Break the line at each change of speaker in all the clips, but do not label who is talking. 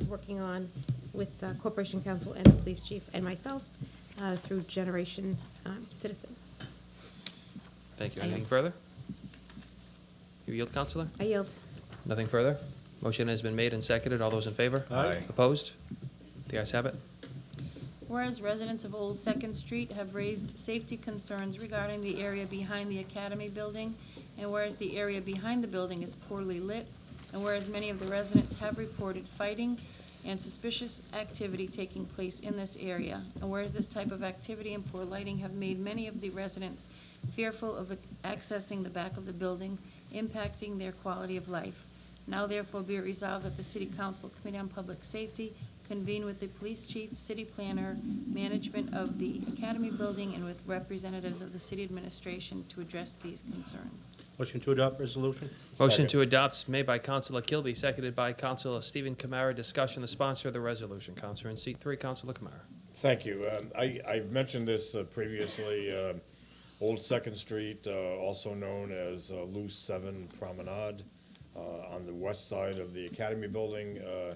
is working on with uh, Corporation Council and the police chief and myself uh, through Generation um, Citizen.
Thank you.
I
Anything
yield.
further? You yield, Counselor?
I yield.
Nothing further? Motion has been made and seconded. All those in favor?
Aye.
Opposed? The ayes have it.
Whereas residents of Old Second Street have raised safety concerns regarding the area behind the Academy Building, and whereas the area behind the building is poorly lit, and whereas many of the residents have reported fighting and suspicious activity taking place in this area, and whereas this type of activity and poor lighting have made many of the residents fearful of accessing the back of the building, impacting their quality of life. Now therefore be it resolved that the City Council Committee on Public Safety convene with the police chief, city planner, management of the Academy Building, and with representatives of the city administration to address these concerns.
Motion to adopt resolution?
Motion to adopt is made by Counselor Kilby, seconded by Counselor Stephen Kamara. Discussion, the sponsor of the resolution. Counselor in seat three, Counselor Kamara.
Thank you. Um, I, I've mentioned this uh, previously, um, Old Second Street, uh, also known as uh, Loose Seven Promenade, uh, on the west side of the Academy Building, uh,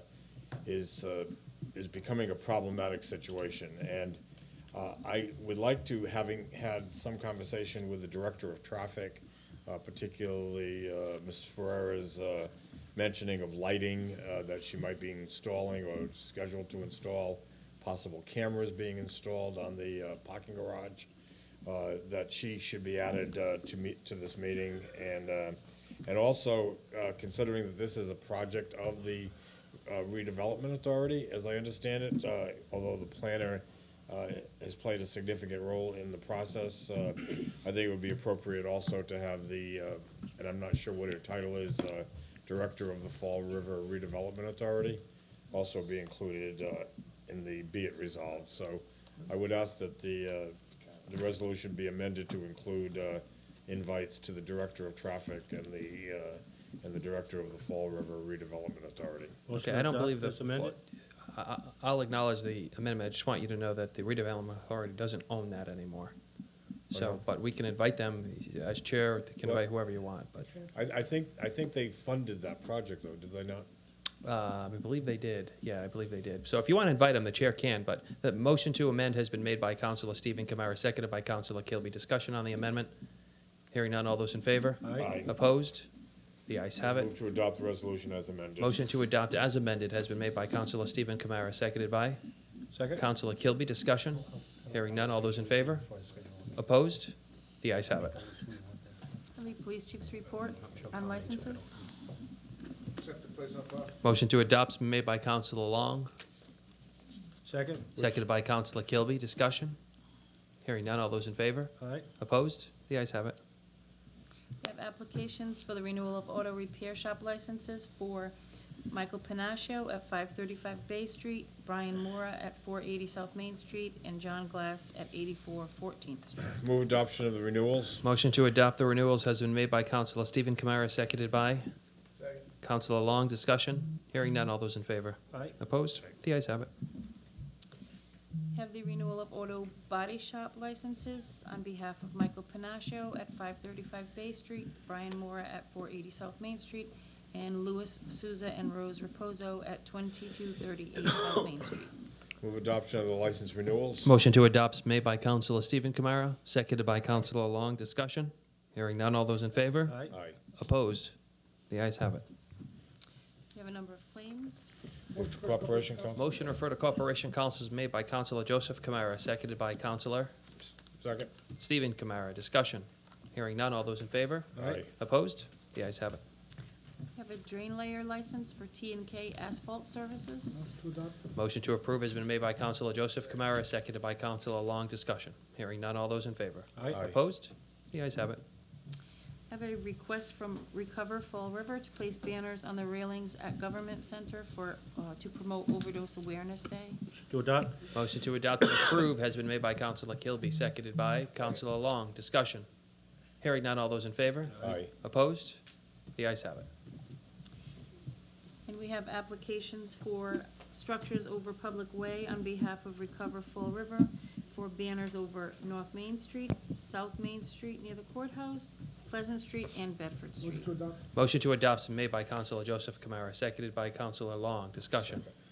is, uh, is becoming a problematic situation. And uh, I would like to, having had some conversation with the Director of Traffic, uh, particularly uh, Ms. Ferrera's uh, mentioning of lighting uh, that she might be installing or scheduled to install, possible cameras being installed on the uh, parking garage, uh, that she should be added uh, to meet, to this meeting. And, uh, and also uh, considering that this is a project of the uh, redevelopment authority, as I understand it, uh, although the planner uh, has played a significant role in the process. Uh, I think it would be appropriate also to have the, uh, and I'm not sure what her title is, uh, Director of the Fall River Redevelopment Authority, also be included uh, in the be it resolved. So I would ask that the, uh, the resolution be amended to include uh, invites to the Director of Traffic and the, uh, and the Director of the Fall River Redevelopment Authority.
Motion
Okay,
to
I don't
adopt
believe the.
as amended?
I- I- I'll acknowledge the amendment. I just want you to know that the redevelopment authority doesn't own that anymore. So, but we can invite them as chair, they can
Well-
invite whoever you want, but
I, I think, I think they funded that project though, did they not?
Uh, I believe they did. Yeah, I believe they did. So if you want to invite them, the chair can, but the motion to amend has been made by Counselor Stephen Kamara, seconded by Counselor Kilby. Discussion on the amendment? Hearing none, all those in favor?
Aye.
Opposed? The ayes have
Move
it.
to adopt the resolution as amended.
Motion to adopt as amended has been made by Counselor Stephen Kamara, seconded by
Second?
Counselor Kilby. Discussion? Hearing none, all those in favor? Opposed? The ayes have it.
And the police chief's report on licenses?
Accept the place on file.
Motion to adopt has been made by Counselor Long,
Second?
seconded by Counselor Kilby. Discussion? Hearing none, all those in favor?
Aye.
Opposed? The ayes have it.
We have applications for the renewal of auto repair shop licenses for Michael Panaccio at five thirty-five Bay Street, Brian Mora at four eighty South Main Street, and John Glass at eighty-four Fourteenth Street.
Move adoption of the renewals.
Motion to adopt the renewals has been made by Counselor Stephen Kamara, seconded by
Second.
Counselor Long. Discussion? Hearing none. All those in favor?
Aye.
Opposed? The ayes have it.
Have the renewal of auto body shop licenses on behalf of Michael Panaccio at five thirty-five Bay Street, Brian Mora at four eighty South Main Street, and Louis Souza and Rose Reposo at twenty-two thirty-eight South Main Street.
Move adoption of the license renewals.
Motion to adopt is made by Counselor Stephen Kamara, seconded by Counselor Long. Discussion? Hearing none. All those in favor?
Aye.
Aye.
Opposed? The ayes have it.
We have a number of claims.
Move to cooperation, Council.
Motion to refer to Corporation Council is made by Counselor Joseph Kamara, seconded by Counselor
Second.
Stephen Kamara. Discussion? Hearing none. All those in favor?
Aye.
Opposed? The ayes have it.
We have a drain layer license for T and K Asphalt Services.
Motion to approve has been made by Counselor Joseph Kamara, seconded by Counselor Long. Discussion. Hearing none. All those in favor?
Aye.
Opposed? The ayes have it.
I Have a request from Recover Fall River to place banners on the railings at Government Center for, uh, to promote overdose awareness day.
Motion to adopt?
Motion to adopt and approve has been made by Counselor Kilby, seconded by Counselor Long. Discussion. Hearing none. All those in favor?
Aye.
Opposed? The ayes have it.
And we have applications for structures over public way on behalf of Recover Fall River for banners over North Main Street, South Main Street near the courthouse, Pleasant Street, and Bedford Street.
Motion to adopt.
Motion to adopt is made by Counselor Joseph Kamara, seconded by Counselor Long. Discussion.